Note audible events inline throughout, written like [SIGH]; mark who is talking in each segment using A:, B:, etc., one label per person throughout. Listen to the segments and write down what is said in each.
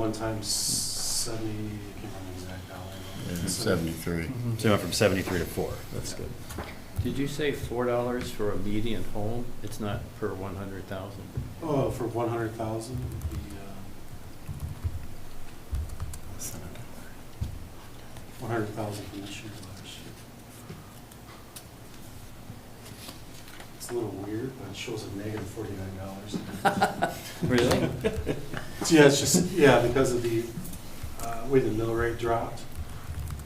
A: one time seventy, I can't remember the exact dollar.
B: Seventy-three.
A: Mhm.
C: So it went from seventy-three to four, that's good.
D: Did you say four dollars for a median home? It's not per one hundred thousand?
A: Oh, for one hundred thousand, uh, the, one hundred thousand from this year to last year. It's a little weird, but it shows a negative forty-nine dollars.
D: Really?
A: Yeah, it's just, yeah, because of the, uh, way the mill rate dropped,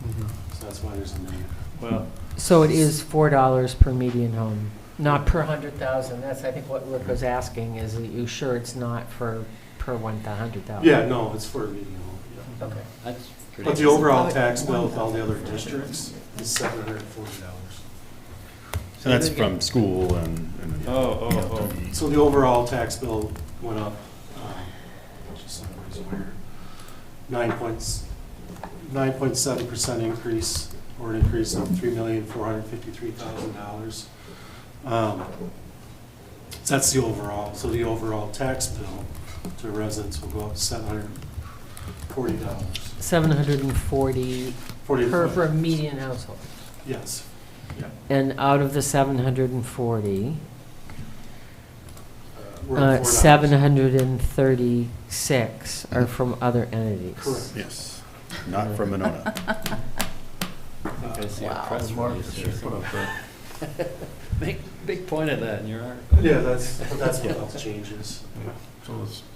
B: Mm-hmm.
A: so that's why there's a negative.
D: Well,
E: So it is four dollars per median home, not per hundred thousand. That's, I think, what Rick was asking, is are you sure it's not for, per one, to hundred thousand?
A: Yeah, no, it's for a median home, yeah.
E: Okay.
D: that's pretty.
A: But the overall tax bill with all the other districts is seven hundred and forty dollars.
C: So that's from school and. and-
D: Oh, oh,
A: So the overall tax bill went up, um, just so everybody's aware, nine points, nine point seven percent increase, or an increase of three million, four hundred and fifty-three thousand dollars. Um, That's the overall, so the overall tax bill to residents will go up seven hundred and forty dollars.
E: Seven hundred and forty
A: Forty,
E: per, per median household.
A: yes,
E: And out of the seven hundred and forty,
A: uh, we're at
E: uh,
A: $4.
E: seven hundred and thirty-six are from other entities.
A: Correct.
C: Yes, not from Monona.
D: I
A: Uh,
D: think I see a
E: Wow.
D: press release there. [LAUGHS] Make, big point of that in your article.
A: Yeah, that's, but that's what else changes. But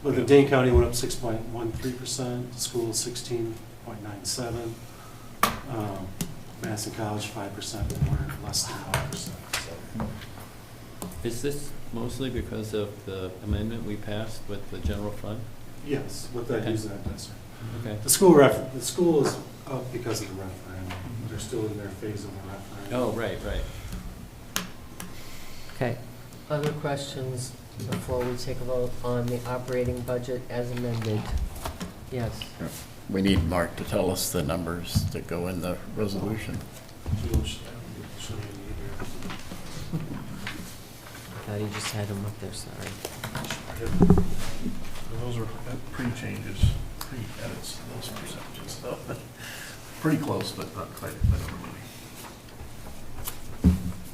A: the
B: Correct.
A: Dane County went up six point one three percent, school sixteen point nine seven. Um, Madison College five percent, and we're less than five percent, so.
D: Is this mostly because of the amendment we passed with the general fund?
A: Yes, what that use that does.
D: Okay.
A: The school ref, the school is up because of the referendum. They're still in their phase of the referendum.
D: Oh, right, right.
E: Okay. Other questions before we take a vote on the operating budget as amended? Yes.
B: [LAUGHS] We need Mark to tell us the numbers that go in the resolution.
E: I thought you just had them up there, sorry.
B: Those are pre-changes, pre-edits, those percentages, so, [LAUGHS] pretty close, but not quite,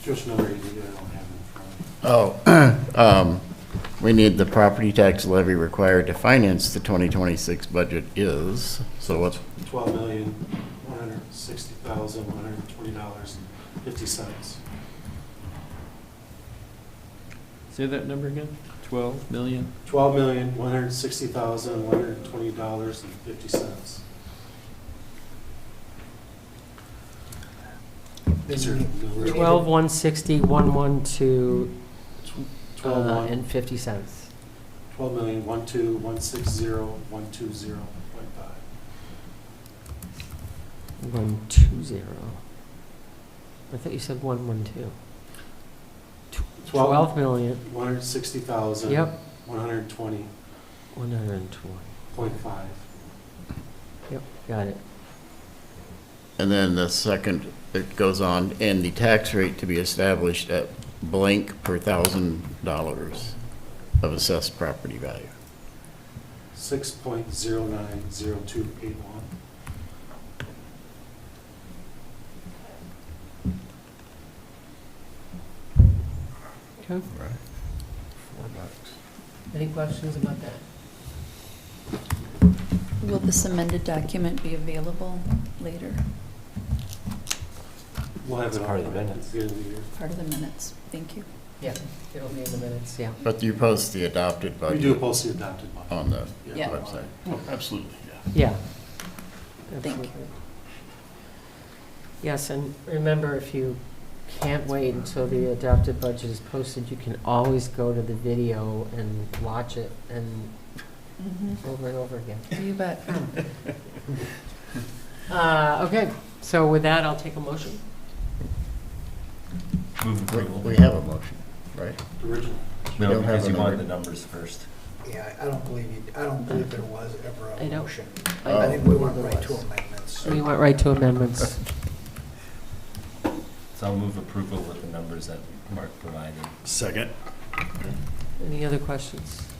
A: Just another idea, I don't have it in front of me.
B: Oh, [CLEARS THROAT] um, we need the property tax levy required to finance the 2026 budget is, so what's,
A: twelve million, one hundred sixty thousand, one hundred twenty dollars and fifty cents.
D: Say that number again? Twelve million?
A: Twelve million, one hundred sixty thousand, one hundred twenty dollars and fifty cents. These are.
E: Twelve, uh, one sixty, one, one, two,
A: Twelve
E: uh,
A: one,
E: and fifty cents.
A: twelve million, one two, one six zero, one two zero point five.
E: One, two, zero. I thought you said one, one, two. Tw-
A: Twelve.
E: Twelve million,
A: One hundred sixty thousand.
E: yep,
A: One hundred twenty
E: one hundred and twenty,
A: point five.
E: got it.
B: and then the second, it goes on, and the tax rate to be established at blank per thousand dollars of assessed property value.
A: Six point zero nine zero two eight one.
E: Okay.
B: Right. Four bucks.
E: Any questions about that?
F: Will this amended document be available later,
A: We'll have it
C: It's part of
A: all
C: the
A: by
C: minutes.
A: the end of the year.
F: part of the minutes? Thank you.
E: Yeah, it'll be in the minutes, yeah.
B: But you post the adopted
A: We
B: budget.
A: do post the adopted one.
B: On the
F: Yeah.
B: website. Oh, Absolutely, yeah.
E: Yeah.
F: Thank you.
E: Absolutely. Yes, and remember, if you can't wait until the adopted budget is posted, you can always go to the video and watch it and
F: Mhm.
E: over and over again.
F: You bet.
E: Uh, Okay, so with that, I'll take a motion.
C: Move
B: We- We have a motion, right?
A: The Original.
B: We don't have a number.
C: numbers first.
G: Yeah, I don't believe you, I don't believe there was ever
E: I
G: a
E: don't-
G: motion.
B: Oh.
G: I think we went right to amendments.
E: We went right to amendments.
C: So I'll move approval with the numbers that Mark provided. Second.
E: Any other questions?
G: Uh,